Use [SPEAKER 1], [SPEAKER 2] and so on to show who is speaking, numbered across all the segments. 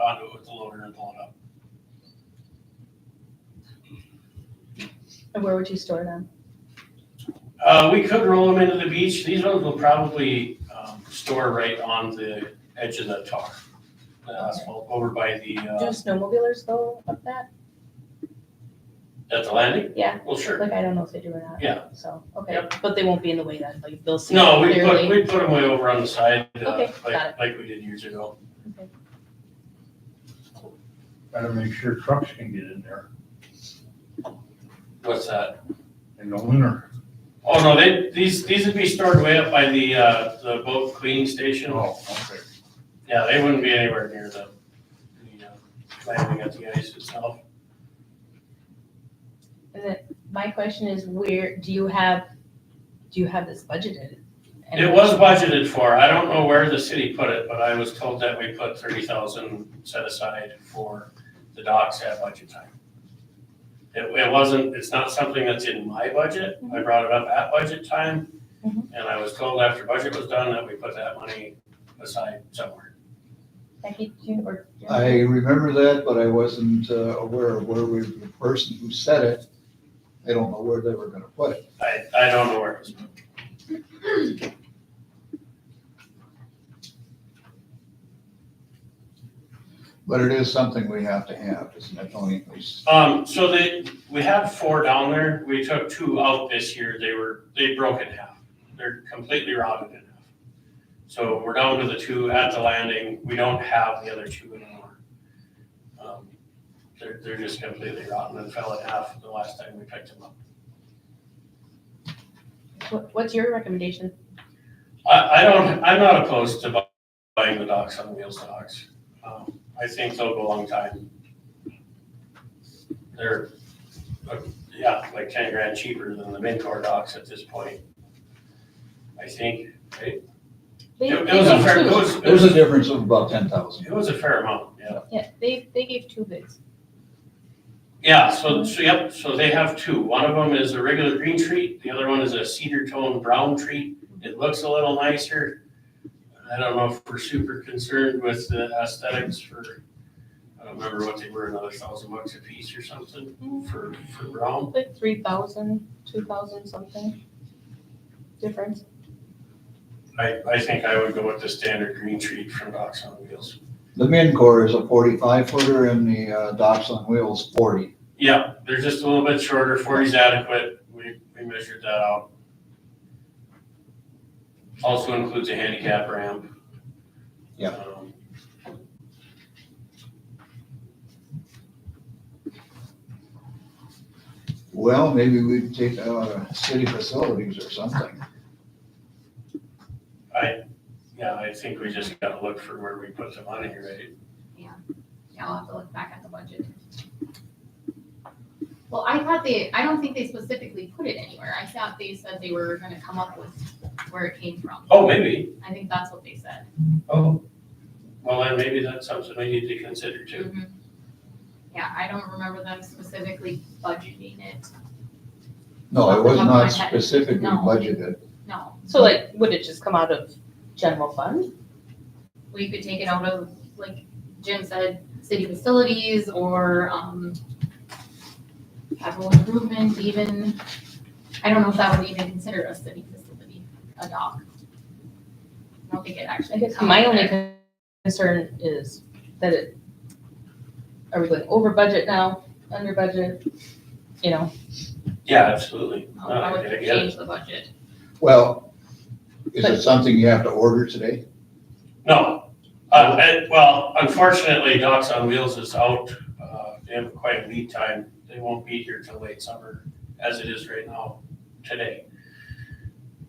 [SPEAKER 1] onto it with oh, the loader and pull it up.
[SPEAKER 2] And where would you store them?
[SPEAKER 1] Uh, we could roll them into the beach. These ones will probably, um, store right on the edge of the tar. The asphalt over by the,
[SPEAKER 2] Do
[SPEAKER 1] uh,
[SPEAKER 2] snowmobilers go up that?
[SPEAKER 1] at the landing?
[SPEAKER 2] Yeah.
[SPEAKER 1] Well, sure.
[SPEAKER 2] Like, I don't know if they do or not.
[SPEAKER 1] Yeah.
[SPEAKER 2] So, okay,
[SPEAKER 1] Yep.
[SPEAKER 2] but they won't be in the way then, like, they'll see
[SPEAKER 1] No, we put,
[SPEAKER 2] clearly.
[SPEAKER 1] we put them way over on the side, uh,
[SPEAKER 2] Okay,
[SPEAKER 1] like,
[SPEAKER 2] got
[SPEAKER 1] like we did years ago.
[SPEAKER 3] Gotta make sure trucks can get in there
[SPEAKER 1] What's that?
[SPEAKER 3] in the winter.
[SPEAKER 1] Oh, no, they, these, these would be stored way up by the, uh, the boat cleaning station.
[SPEAKER 3] Oh, okay.
[SPEAKER 1] Yeah, they wouldn't be anywhere near the, the, uh, landing at the ice itself.
[SPEAKER 2] And then My question is where, do you have, do you have this budgeted? And-
[SPEAKER 1] It was budgeted for, I don't know where the city put it, but I was told that we put thirty thousand set aside for the docks at budget time. It, it wasn't, it's not something that's in my budget, I brought it up at budget time,
[SPEAKER 2] Mhm.
[SPEAKER 1] and I was told after budget was done that we put that money aside somewhere.
[SPEAKER 2] Becky, do you, or?
[SPEAKER 4] I remember that, but I wasn't uh, aware of where we, the person who said it, I don't know where they were gonna put it.
[SPEAKER 1] I, I don't know where it was.
[SPEAKER 4] But it is something we have to have, isn't it, Tony? At least-
[SPEAKER 1] Um, so they, we had four down there, we took two out this year, they were, they broke in half, they're completely rotted in half. So we're down to the two at the landing, we don't have the other two anymore. Um, They're, they're just completely rotten and fell in half the last time we picked them up.
[SPEAKER 2] What, what's your recommendation?
[SPEAKER 1] I, I don't, I'm not opposed to bu- buying the docks on wheels docks. Um, I think they'll go a long time. They're, uh, yeah, like ten grand cheaper than the Mincor docks at this point. I think, it
[SPEAKER 2] They-
[SPEAKER 1] it
[SPEAKER 2] they
[SPEAKER 1] was a
[SPEAKER 2] gave
[SPEAKER 1] fair, it
[SPEAKER 2] two.
[SPEAKER 1] was, it
[SPEAKER 4] There's a
[SPEAKER 1] was,
[SPEAKER 4] difference of about ten thousand.
[SPEAKER 1] it was a fair amount, yeah.
[SPEAKER 2] Yeah, they, they gave two bids.
[SPEAKER 1] Yeah, so, so, yep, so they have two. One of them is a regular green treat, the other one is a cedar tone brown treat. It looks a little nicer. I don't know if we're super concerned with the aesthetics for, I don't remember what they were, another thousand bucks a piece or something for, for brown.
[SPEAKER 2] Like three thousand, two thousand something difference.
[SPEAKER 1] I, I think I would go with the standard green treat from Docs on Wheels.
[SPEAKER 4] The Mincor is a forty-five footer and the uh, docks on wheels forty.
[SPEAKER 1] Yeah, they're just a little bit shorter, forty's adequate. We, we measured that out. Also includes a handicap ramp.
[SPEAKER 4] Yeah.
[SPEAKER 1] Um,
[SPEAKER 4] Well, maybe we'd take uh, city facilities or something.
[SPEAKER 1] Yeah, I think we just gotta look for where we put the money, right?
[SPEAKER 5] Yeah, I'll have to look back at the budget. Well, I thought they, I don't think they specifically put it anywhere. I thought they said they were gonna come up with where it came from.
[SPEAKER 1] Oh, maybe.
[SPEAKER 5] I think that's what they said.
[SPEAKER 1] Oh. Well, then maybe that's something we need to consider
[SPEAKER 5] Mm-hmm.
[SPEAKER 1] too.
[SPEAKER 5] Yeah, I don't remember them specifically budgeting it,
[SPEAKER 4] No, it was not
[SPEAKER 5] Okay.
[SPEAKER 4] specifically
[SPEAKER 5] No.
[SPEAKER 4] budgeted.
[SPEAKER 5] no.
[SPEAKER 2] So like, would it just come out of general fund?
[SPEAKER 5] We could take it out of, like Jim said, city facilities or, um, capital improvement even. I don't know if that would even consider a city facility, a dock. I don't think it actually.
[SPEAKER 2] I guess
[SPEAKER 5] come
[SPEAKER 2] my
[SPEAKER 5] out
[SPEAKER 2] only
[SPEAKER 5] there.
[SPEAKER 2] con- concern is that it, are we going over budget now, under budget? You know,
[SPEAKER 1] Yeah, absolutely. Uh, No,
[SPEAKER 5] I
[SPEAKER 1] Oh, I
[SPEAKER 5] would
[SPEAKER 1] get it.
[SPEAKER 5] change the budget.
[SPEAKER 4] Well, is it something you have to order today?
[SPEAKER 1] No, uh, and- well, unfortunately, Docs on Wheels is out. Uh, They have quite a lead time. They won't be here till late summer, as it is right now, today.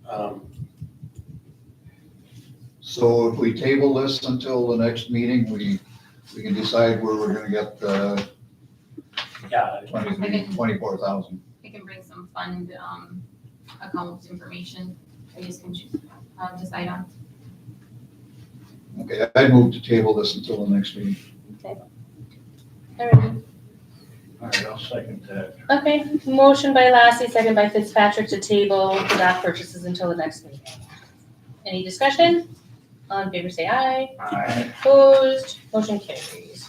[SPEAKER 1] Um,
[SPEAKER 4] So if we table this until the next meeting, we, we can decide where we're gonna get the
[SPEAKER 1] Yeah,
[SPEAKER 4] twenty-three, twenty-four thousand.
[SPEAKER 5] I can bring some fund, um, accounts information that you can choose, uh, decide on.
[SPEAKER 4] Okay, I move to table this until the next meeting.
[SPEAKER 2] Alrighty.
[SPEAKER 3] All right, I'll second that.
[SPEAKER 2] okay, motion by Lassie, second by Fitzpatrick to table the dock purchases until the next meeting. Any discussion? All in favor say aye,
[SPEAKER 3] Aye.
[SPEAKER 2] opposed, motion carries.